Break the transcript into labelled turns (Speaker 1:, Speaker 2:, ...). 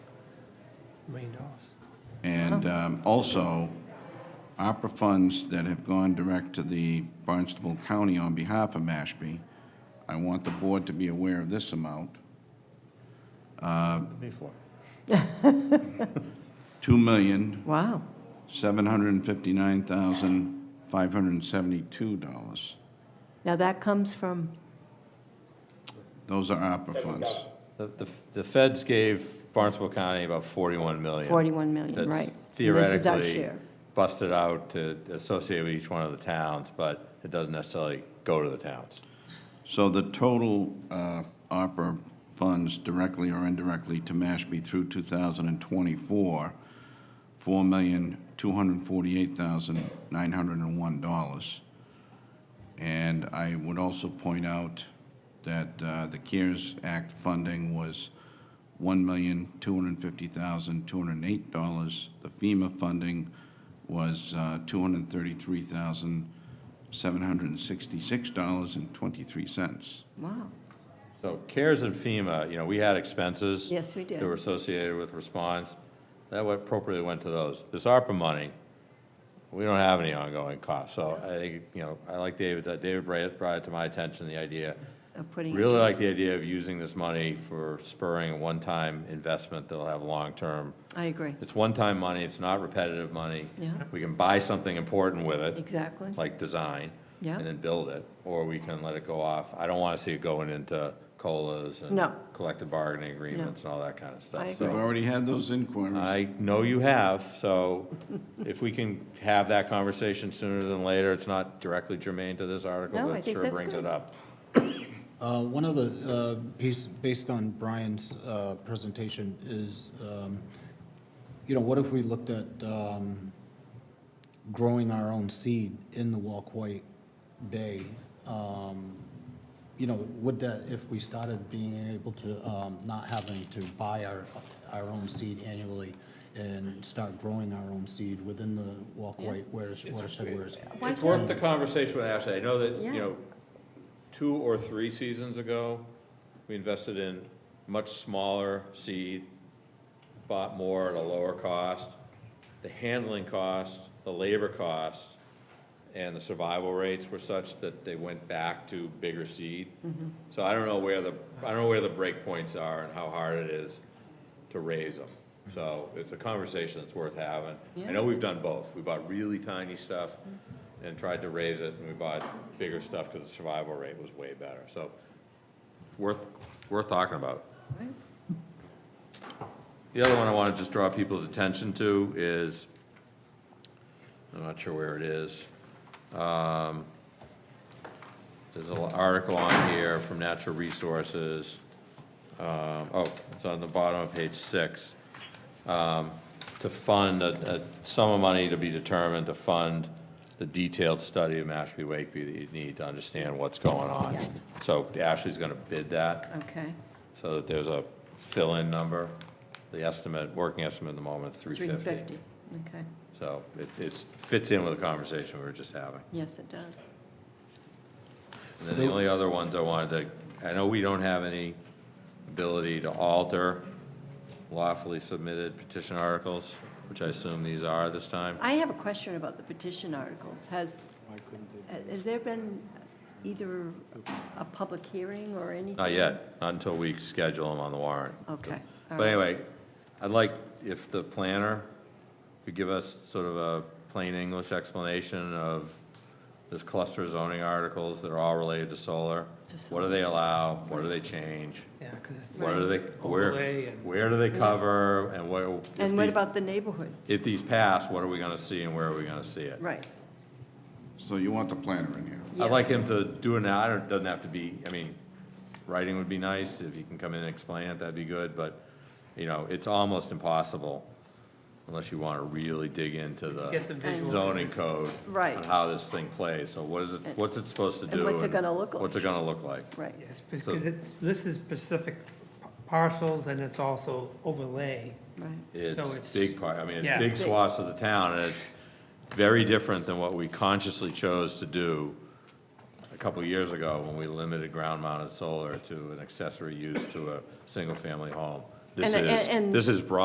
Speaker 1: million dollars.
Speaker 2: And um, also, opera funds that have gone direct to the Barnstable County on behalf of Mashpee, I want the board to be aware of this amount,
Speaker 1: Before.
Speaker 3: Wow.
Speaker 2: $2,759,572.
Speaker 3: Now that comes from,
Speaker 2: Those are opera funds.
Speaker 4: The, the the feds gave Barnstable County about 41 million.
Speaker 3: 41 million,
Speaker 4: That's
Speaker 3: right. And this is our
Speaker 4: Theoretically
Speaker 3: share.
Speaker 4: busted out to associate with each one of the towns, but it doesn't necessarily go to the towns.
Speaker 2: So the total uh, opera funds directly or indirectly to Mashpee through 2024, $4,248,901. And I would also point out that uh, the CARES Act funding was $1,250,208. The FEMA funding was uh, $233,766.23.
Speaker 3: wow,
Speaker 4: So CARES and FEMA, you know, we had expenses.
Speaker 3: Yes, we did.
Speaker 4: That were associated with response. That went- appropriately went to those. This ARPA money, we don't have any ongoing costs. So I, think you know, I like David, that David brought brought it to my attention, the idea
Speaker 3: of putting. it-
Speaker 4: Really like the idea of using this money for spurring a one-time investment that'll have long-term.
Speaker 3: I agree,
Speaker 4: It's one-time money, it's not repetitive money.
Speaker 3: Yeah.
Speaker 4: We can buy something important with it,
Speaker 3: exactly.
Speaker 4: like design.
Speaker 3: Yeah.
Speaker 4: And then build it, or we can let it go off. I don't want to see it going into COLAs and
Speaker 3: No.
Speaker 4: collective bargaining agreements and all that kind of stuff.
Speaker 3: I
Speaker 4: So-
Speaker 2: We've already had those inquiries.
Speaker 4: I know you have, so if we can have that conversation sooner than later, it's not directly germane to this article,
Speaker 3: No, I
Speaker 4: but it
Speaker 3: think
Speaker 4: sure
Speaker 3: that's
Speaker 4: brings
Speaker 3: good.
Speaker 4: it up.
Speaker 5: Uh, One of the uh, piece, based on Brian's uh, presentation, is, um, you know, what if we looked at um, growing our own seed in the Walkway Bay? Um, You know, would that, if we started being able to, um, not having to buy our, our own seed annually and start growing our own seed within the Walkway whereas- watershed, whereas
Speaker 3: Why
Speaker 4: It's worth the conversation with Ashley. I know that,
Speaker 3: Yeah.
Speaker 4: you know, two or three seasons ago, we invested in much smaller seed, bought more at a lower cost. The handling cost, the labor cost, and the survival rates were such that they went back to bigger seed. So I don't know where the, I don't know where the break points are and how hard it is to raise them. So it's a conversation that's worth having. I know we've done both. We bought really tiny stuff and tried to raise it, and we bought bigger stuff because the survival rate was way better. So worth, worth talking about.
Speaker 3: Right.
Speaker 4: The other one I want to just draw people's attention to is, I'm not sure where it is. Um, There's an article on here from Natural Resources. Um, Oh, it's on the bottom of page six. Um, To fund a, a sum of money to be determined to fund the detailed study of Mashpee Wakeby that you need to understand what's going on.
Speaker 3: Yeah.
Speaker 4: So Ashley's going to bid that
Speaker 3: Okay,
Speaker 4: so that there's a fill-in number. The estimate, working estimate at the moment is 350.
Speaker 3: 350, okay,
Speaker 4: So it it's, fits in with the conversation we were just having.
Speaker 3: yes, it does.
Speaker 4: And then the only other ones I wanted to, I know we don't have any ability to alter lawfully submitted petition articles, which I assume these are this time.
Speaker 3: I have a question about the petition articles. Has, has there been either a public hearing or anything?
Speaker 4: Not yet, not until we schedule them on the warrant.
Speaker 3: Okay, all
Speaker 4: But
Speaker 3: right.
Speaker 4: anyway, I'd like if the planner could give us sort of a plain English explanation of this cluster zoning articles that are all related to solar.
Speaker 3: To
Speaker 4: What do they allow? What do they change?
Speaker 1: Yeah, because it's.
Speaker 4: What do they,
Speaker 1: Overlay
Speaker 4: where,
Speaker 1: and-
Speaker 4: where do they cover and what? if
Speaker 3: And what
Speaker 4: these-
Speaker 3: about the neighborhoods?
Speaker 4: If these pass, what are we gonna see and where are we gonna see it?
Speaker 3: Right,
Speaker 2: So you want the planner in here?
Speaker 4: I'd like
Speaker 3: Yes.
Speaker 4: him to do it now, I don't, doesn't have to be, I mean, writing would be nice, if you can come in and explain it, that'd be good, but, you know, it's almost impossible unless you wanna really dig into
Speaker 1: Get some
Speaker 4: the
Speaker 1: visual
Speaker 4: zoning
Speaker 1: pieces.
Speaker 4: code.
Speaker 3: Right.
Speaker 4: On how this thing plays, so what is it, what's it supposed to do?
Speaker 3: And what's it gonna look
Speaker 4: What's it gonna look like?
Speaker 3: right.
Speaker 1: Yes, because it's, this is specific parcels and it's also overlay.
Speaker 3: Right,
Speaker 4: It's
Speaker 1: it's-
Speaker 4: big part, I mean,
Speaker 1: Yeah.
Speaker 4: it's big
Speaker 3: It's big.
Speaker 4: swaths of the town, and it's very different than what we consciously chose to do a couple of years ago when we limited ground-mounted solar to an accessory use to a single-family home. This
Speaker 3: And-
Speaker 4: is,
Speaker 3: and- and-
Speaker 4: this is broad.